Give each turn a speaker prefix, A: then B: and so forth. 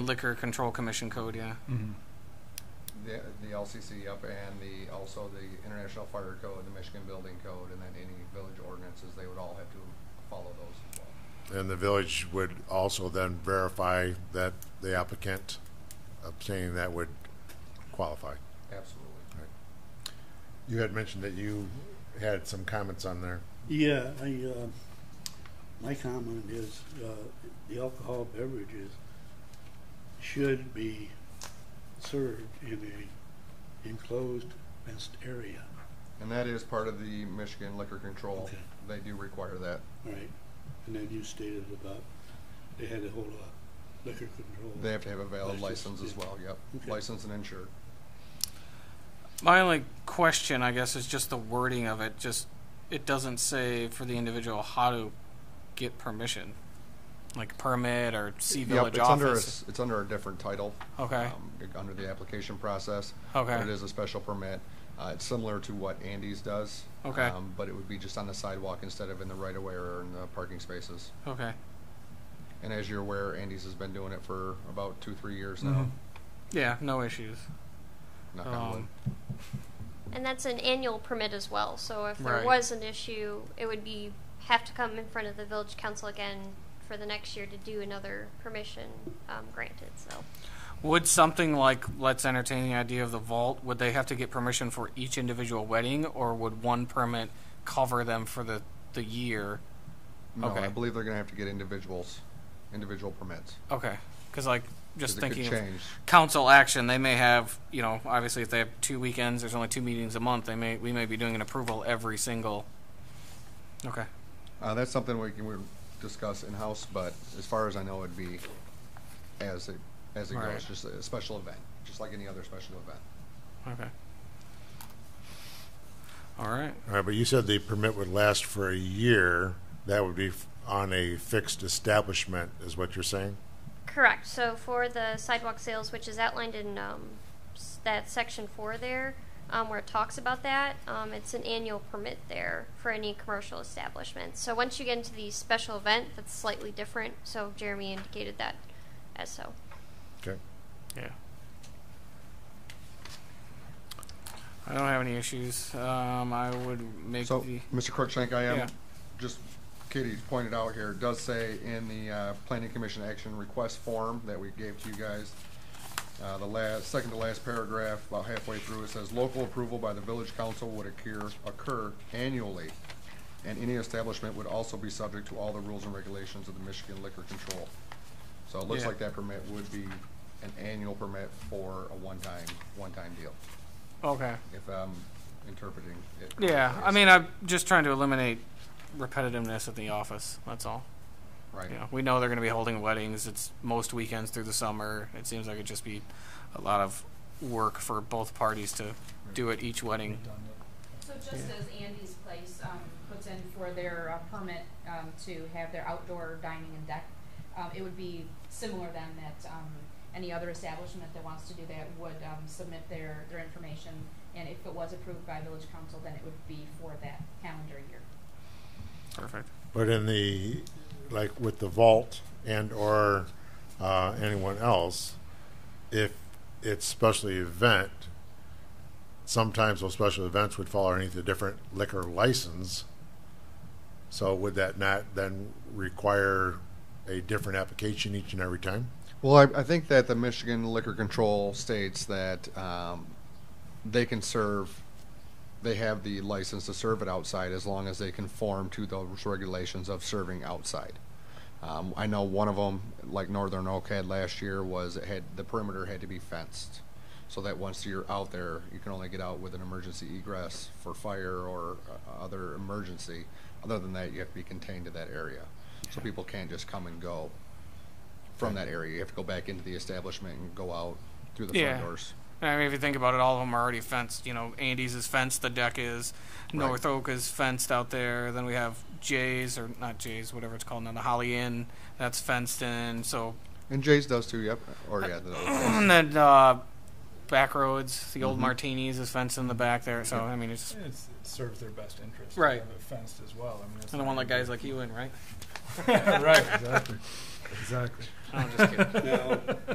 A: Liquor Control Commission Code, yeah.
B: the, the LCC, yep, and the, also the International Fire Code, the Michigan Building Code, and then any village ordinances, they would all have to follow those as well.
C: And the village would also then verify that the applicant obtaining that would qualify.
B: Absolutely.
C: You had mentioned that you had some comments on there.
D: Yeah, I, uh, my comment is, uh, the alcohol beverages should be served in a enclosed fenced area,
B: And that is part of the Michigan liquor control.
D: Okay.
B: They do require that.
D: right? And then you stated about, they had to hold a liquor control.
B: They have to have a valid
D: License,
B: license as
D: yeah.
B: well, yep.
D: Okay.
B: Licensed and insured.
A: My only question, I guess, is just the wording of it. Just it doesn't say for the individual how to get permission, like permit or see village
B: Yep, it's under, a
A: office.
B: s- it's under a different title.
A: Okay.
B: um, Under the application process. But uh, it
A: okay.
B: is a special permit. Uh, It's similar to what Andy's does.
A: Okay.
B: um, But it would be just on the sidewalk instead of in the right-of-way or in the parking spaces.
A: Okay.
B: And as you're aware, Andy's has been doing it for about two, three years now.
A: Yeah. No issues.
B: Knock on wood.
A: Um,
E: And that's an annual permit as well, so if there
A: Right.
E: was an issue, it would be, have to come in front of the village council again for the next year to do another permission, um, granted, so.
A: would something like let's entertain the idea of the vault? Would they have to get permission for each individual wedding, or would one permit cover them for the the year?
B: No, I
A: okay.
B: believe they're going to have to get individuals, individual permits.
A: Okay. Because like just
B: 'cause
A: thinking
B: it
A: of
B: could change.
A: council action, they may have, you know, obviously if they have two weekends, there's only two meetings a month, they may, we may be doing an approval every single. Okay,
B: Uh, that's something we can we discuss in house, but as far as I know, it'd be as it as it
A: Right.
B: goes, just a special event, just like any other special event.
A: okay. All right,
C: All right, but you said the permit would last for a year. That would be f- on a fixed establishment, is what you're saying?
E: Correct, so for the sidewalk sales, which is outlined in, um, s- that section four there, um, where it talks about that, um, it's an annual permit there for any commercial establishment. So once you get into the special event, that's slightly different, so Jeremy indicated that as so.
C: Okay.
A: yeah. I don't have any issues, um, I would make
B: So,
A: the,
B: Mr. Crookshank, I am
A: Yeah.
B: just Katie's pointed out here. It does say in the uh, Planning Commission action request form that we gave to you guys. Uh, the last, second to last paragraph, about halfway through, it says local approval by the village council would occur, occur annually, and any establishment would also be subject to all the rules and regulations of the Michigan Liquor Control. So it looks
A: Yeah.
B: like that permit would be an annual permit for a one-time, one-time deal,
A: okay.
B: if I'm interpreting it.
A: Yeah,
B: correctly.
A: I mean, I'm just trying to eliminate repetitiveness at the office, that's all.
B: Right.
A: You know, we know they're going to be holding weddings. It's most weekends through the summer. It seems like it'd just be a lot of work for both parties to do it each wedding.
F: So just as Andy's Place um, puts in for their uh, permit um, to have their outdoor dining and deck, um, it would be similar then that um, any other establishment that wants to do that would um, submit their, their information. And if it was approved by village council, then it would be for that calendar year.
A: Perfect.
C: But in the, like with the vault and or uh, anyone else, if it's special event, sometimes those special events would fall underneath a different liquor license. So would that not then require a different application each and every time?
B: Well, I, I think that the Michigan Liquor Control states that um, they can serve, they have the license to serve it outside as long as they conform to those regulations of serving outside. Um, I know one of them, like Northern Oak had last year, was it had the perimeter had to be fenced, so that once you're out there, you can only get out with an emergency egress for fire or uh, other emergency. Other than that, you have to be contained to that area, so people can't just come and go from that area. You have to go back into the establishment and go out through the
A: Yeah.
B: front doors.
A: I mean, if you think about it, all of them are already fenced. You know, Andy's is fenced. The deck is. North Oak is fenced out there. Then we have Jay's or not Jay's, whatever it's called now, the Holly Inn. That's fenced in. So
B: And Jay's does too. Yep. Or yeah. the other
A: and then uh, back roads, the old Martinis is fenced in the back there. So I mean, it's
G: It's, it serves their best interest.
A: Right.
G: To have it fenced as well. I mean, it's
A: I don't want like guys like you in, right?
G: right, exactly. Exactly.
A: I'm just kidding.
D: Now,